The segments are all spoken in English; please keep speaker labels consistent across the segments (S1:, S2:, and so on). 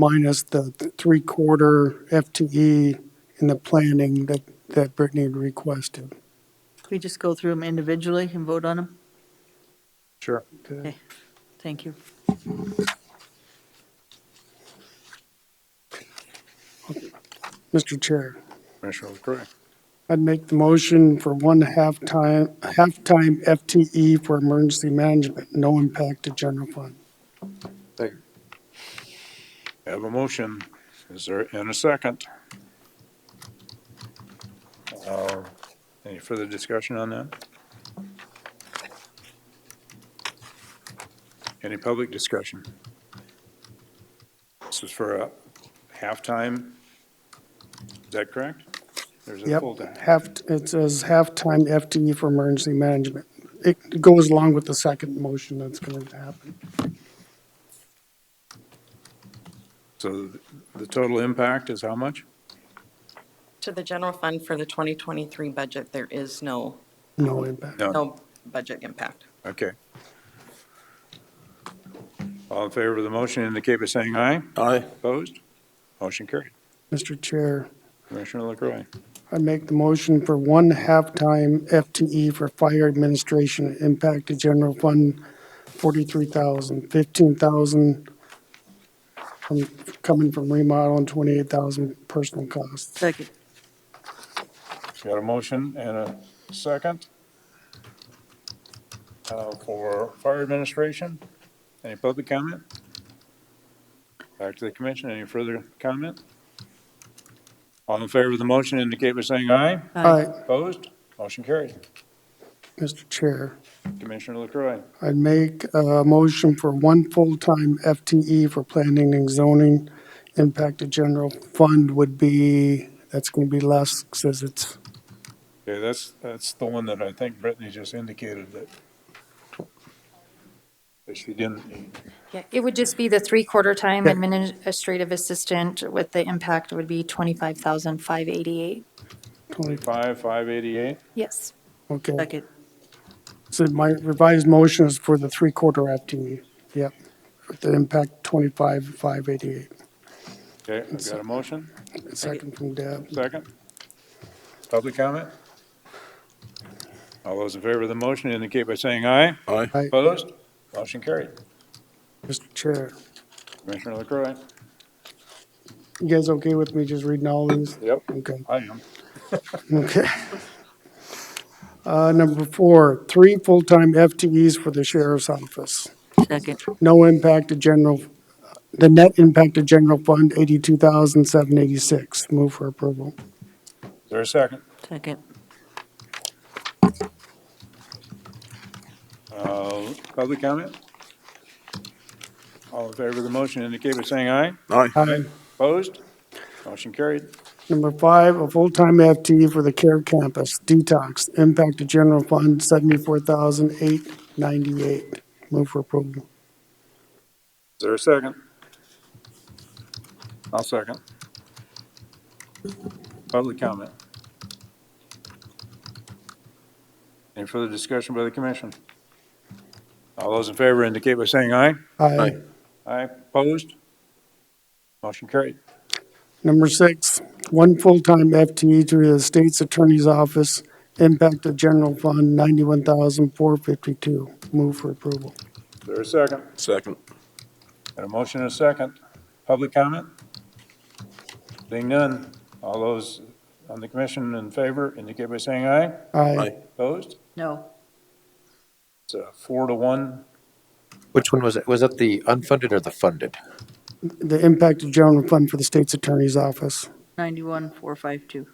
S1: minus the th- three-quarter FTE in the planning that, that Brittany had requested.
S2: We just go through them individually and vote on them?
S3: Sure.
S1: Okay.
S2: Thank you.
S1: Mr. Chair,
S3: Commissioner LaCroy.
S1: I'd make the motion for one half-time, half-time FTE E for emergency management, no impact to general fund.
S3: I Have a motion. Is there, and a second? Uh, Any further discussion on that? Any public discussion? This is for a halftime. Is that correct? There's a
S1: Yep,
S3: full-time.
S1: half, it says half-time FTE E for emergency management. It goes along with the second motion that's going to happen.
S3: So th- the total impact is how much?
S4: To the general fund for the 2023 budget, there is no,
S1: No impact.
S3: No.
S4: no budget impact.
S3: Okay. All in favor of the motion indicate by saying aye.
S5: Aye.
S3: Opposed? Motion carried.
S1: Mr. Chair,
S3: Commissioner LaCroy.
S1: I make the motion for one half-time FTE for fire administration impact to general fund, forty-three thousand, fifteen thousand from, coming from remodel and twenty-eight thousand personal costs.
S2: Second.
S3: Got a motion and a second uh, for fire administration. Any public comment? Back to the commission. Any further comment? All in favor of the motion indicate by saying aye.
S1: All right,
S3: Opposed? Motion carried.
S1: Mr. Chair,
S3: Commissioner LaCroy.
S1: I'd make a motion for one full-time FTE for planning and zoning. Impact to general fund would be, that's gonna be less, says it's,
S3: Okay, that's, that's the one that I think Brittany just indicated that that she didn't,
S6: Yeah, it would just be the three-quarter time
S1: Yeah.
S6: administrative assistant with the impact would be twenty-five thousand five eighty-eight.
S1: twenty,
S3: five, five eighty-eight?
S6: Yes,
S1: okay.
S2: Second.
S1: So my revised motion is for the three-quarter FTE, yep, with the impact twenty-five, five eighty-eight.
S3: Okay, I've got a motion,
S1: Second from Deb.
S3: second. Public comment? All those in favor of the motion indicate by saying aye.
S5: Aye.
S1: Aye.
S3: Opposed? Motion carried.
S1: Mr. Chair,
S3: Commissioner LaCroy?
S1: you guys okay with me just reading all these?
S3: Yep.
S1: Okay,
S3: I am.
S1: okay. Uh, number four, three full-time FTEs for the sheriff's office.
S2: Second.
S1: No impact to general, the net impact to general fund, eighty-two thousand, seven eighty-six. Move for approval.
S3: Is there a second?
S2: Second.
S3: Uh, Public comment? All in favor of the motion indicate by saying aye.
S5: Aye.
S1: Aye.
S3: Opposed? Motion carried.
S1: Number five, a full-time FTE for the CARE Campus detox, impact to general fund, seventy-four thousand eight ninety-eight. Move for approval.
S3: Is there a second? I'll second. Public comment. Any further discussion by the commission? All those in favor indicate by saying aye.
S1: Aye.
S5: Aye.
S3: Aye. Opposed? Motion carried.
S1: Number six, one full-time FTE to the state's attorney's office, impact to general fund, ninety-one thousand four fifty-two. Move for approval.
S3: Is there a second?
S5: Second.
S3: Got a motion and a second. Public comment? Being none, all those on the commission in favor indicate by saying aye.
S1: Aye.
S5: Aye.
S3: Opposed?
S2: No.
S3: It's a four to one.
S7: Which one was it? Was that the unfunded or the funded?
S1: The impact to general fund for the state's attorney's office.
S2: 91,452.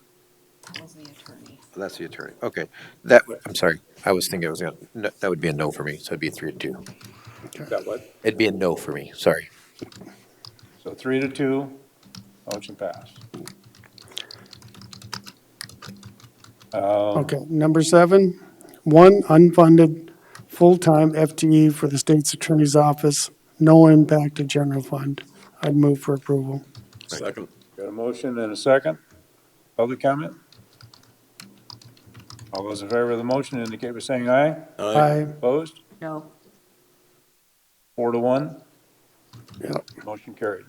S4: Was the attorney.
S7: That's the attorney. Okay. That, I'm sorry. I was thinking it was, gonna- no, that would be a no for me. So it'd be a three to two.
S3: Got what?
S7: It'd be a no for me. Sorry.
S3: So three to two, motion passed. Uh,
S1: Okay, number seven, one unfunded full-time FTE for the state's attorney's office, no impact to general fund. I'd move for approval.
S5: Second.
S3: Got a motion and a second. Public comment? All those in favor of the motion indicate by saying aye.
S1: Aye.
S3: Opposed?
S2: No.
S3: Four to one,
S1: Yep.
S3: motion carried.